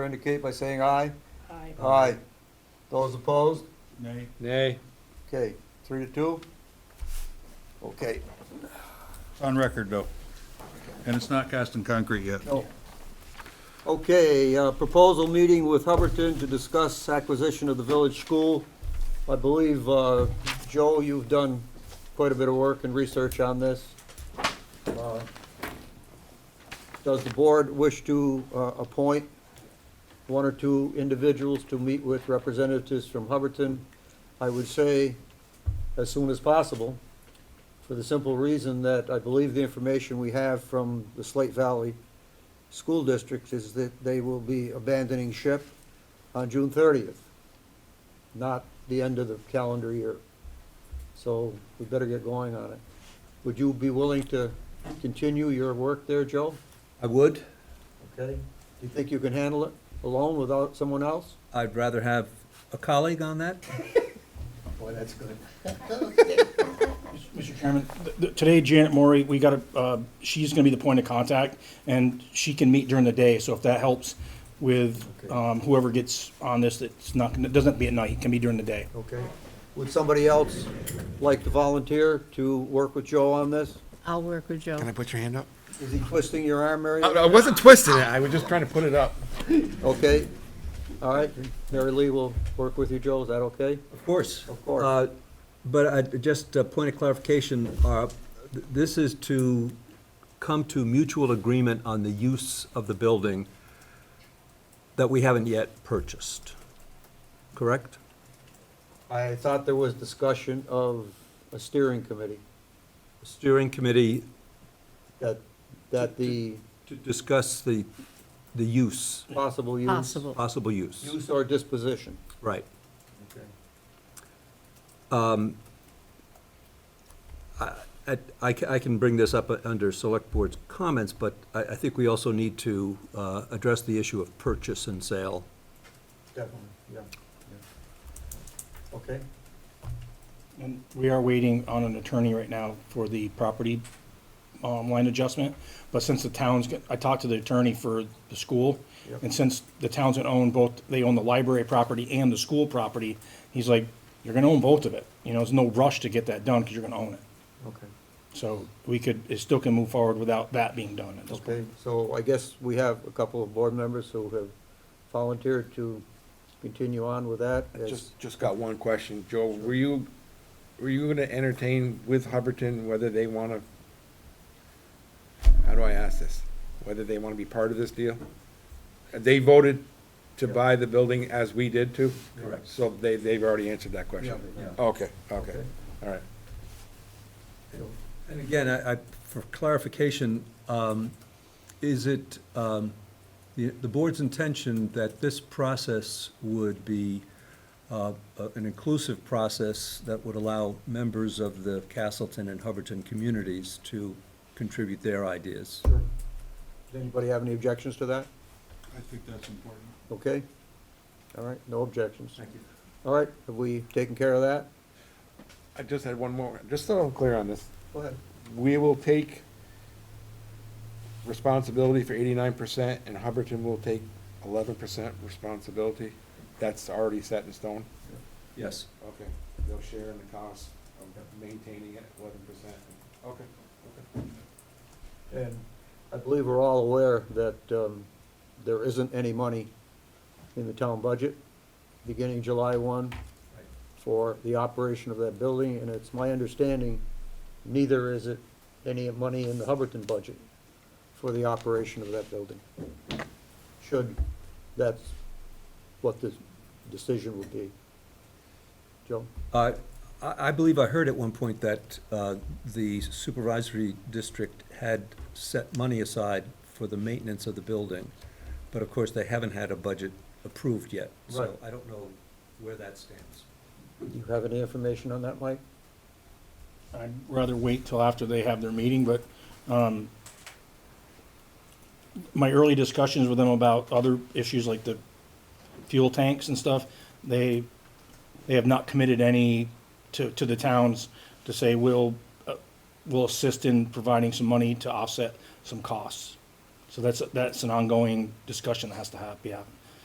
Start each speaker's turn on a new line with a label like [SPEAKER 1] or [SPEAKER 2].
[SPEAKER 1] indicate by saying aye.
[SPEAKER 2] Aye.
[SPEAKER 1] Aye. Those opposed?
[SPEAKER 3] Nay.
[SPEAKER 4] Nay.
[SPEAKER 1] Okay, three to two? Okay,
[SPEAKER 3] It's on record, though. And it's not cast in concrete yet.
[SPEAKER 1] no. Okay, uh, proposal meeting with Hubbardton to discuss acquisition of the village school. I believe, uh, Joe, you've done quite a bit of work and research on this. Uh, Does the board wish to uh, appoint one or two individuals to meet with representatives from Hubbardton? I would say as soon as possible, for the simple reason that I believe the information we have from the Slate Valley School District is that they will be abandoning ship on June thirtieth, not the end of the calendar year. So we better get going on it. Would you be willing to continue your work there, Joe?
[SPEAKER 5] I would.
[SPEAKER 1] Okay. Do you think you can handle it alone without someone else?
[SPEAKER 5] I'd rather have a colleague on that.
[SPEAKER 1] Boy, that's good.
[SPEAKER 6] Mr. Chairman, th- th- today Janet Maury, we got a, uh, she's gonna be the point of contact, and she can meet during the day, so if that helps with,
[SPEAKER 1] Okay.
[SPEAKER 6] um, whoever gets on this, it's not, gonna- it doesn't have to be at night, it can be during the day.
[SPEAKER 1] Okay. Would somebody else like to volunteer to work with Joe on this?
[SPEAKER 2] I'll work with Joe.
[SPEAKER 7] Can I put your hand up?
[SPEAKER 1] Is he twisting your arm, Mary?
[SPEAKER 7] I wasn't twisting it. I was just trying to put it up.
[SPEAKER 1] Okay, all right, Mary Lee will work with you, Joe, is that okay?
[SPEAKER 5] Of course.
[SPEAKER 1] Of course.
[SPEAKER 5] Uh, But I, just a point of clarification, uh, th- this is to come to mutual agreement on the use of the building that we haven't yet purchased, correct?
[SPEAKER 1] I thought there was discussion of a steering committee,
[SPEAKER 5] Steering committee
[SPEAKER 1] that, that the
[SPEAKER 5] to discuss the, the use,
[SPEAKER 1] possible use.
[SPEAKER 2] Possible.
[SPEAKER 5] possible use,
[SPEAKER 1] Use or disposition.
[SPEAKER 5] right.
[SPEAKER 1] Okay.
[SPEAKER 5] I, I ca- I can bring this up uh, under Select Board's comments, but I, I think we also need to uh, address the issue of purchase and sale.
[SPEAKER 1] Definitely, yeah, Okay,
[SPEAKER 6] And we are waiting on an attorney right now for the property, um, line adjustment, but since the town's, got- I talked to the attorney for the school,
[SPEAKER 1] Yep.
[SPEAKER 6] and since the towns that own both, they own the library property and the school property, he's like, you're gonna own both of it, you know, there's no rush to get that done, cause you're gonna own it.
[SPEAKER 1] okay,
[SPEAKER 6] So we could, it still can move forward without that being done at this point.
[SPEAKER 1] okay, so I guess we have a couple of board members who have volunteered to continue on with that. as-
[SPEAKER 7] Just, just got one question. Joe, were you, were you gonna entertain with Hubbardton whether they wanna, how do I ask this? Whether they wanna be part of this deal? They voted to buy the building as we did too?
[SPEAKER 5] Correct.
[SPEAKER 7] So they, they've already answered that question?
[SPEAKER 5] Yeah, yeah.
[SPEAKER 7] Okay, okay, all right.
[SPEAKER 5] And again, I, I- for clarification, um, is it um, the the board's intention that this process would be uh, a- an inclusive process that would allow members of the Castleton and Hubbardton communities to contribute their ideas?
[SPEAKER 1] Does anybody have any objections to that?
[SPEAKER 3] I think that's important.
[SPEAKER 1] Okay? All right, no objections.
[SPEAKER 5] you.
[SPEAKER 1] All right, have we taken care of that?
[SPEAKER 7] I just had one more, just so I'm clear on this.
[SPEAKER 1] Go ahead.
[SPEAKER 7] we will take responsibility for eighty-nine percent, and Hubbardton will take eleven percent responsibility. That's already set in stone?
[SPEAKER 5] Yes.
[SPEAKER 7] Okay, they'll share in the cost of maintaining it, eleven percent. Okay, okay.
[SPEAKER 1] And I believe we're all aware that um, there isn't any money in the town budget beginning July 1 for the operation of that building, and it's my understanding, neither is it any money in the Hubbardton budget for the operation of that building. Should, that's what the decision would be. Joe?
[SPEAKER 5] I, Uh, I believe I heard at one point that uh, the supervisory district had set money aside for the maintenance of the building, but of course, they haven't had a budget approved yet, so
[SPEAKER 1] Right.
[SPEAKER 5] I don't know where that stands.
[SPEAKER 1] Do you have any information on that, Mike?
[SPEAKER 6] I'd rather wait till after they have their meeting, but, um, my early discussions with them about other issues like the fuel tanks and stuff, they, they have not committed any to, to the towns to say, we'll, uh, we'll assist in providing some money to offset some costs. So that's, that's an ongoing discussion that has to have, be happening.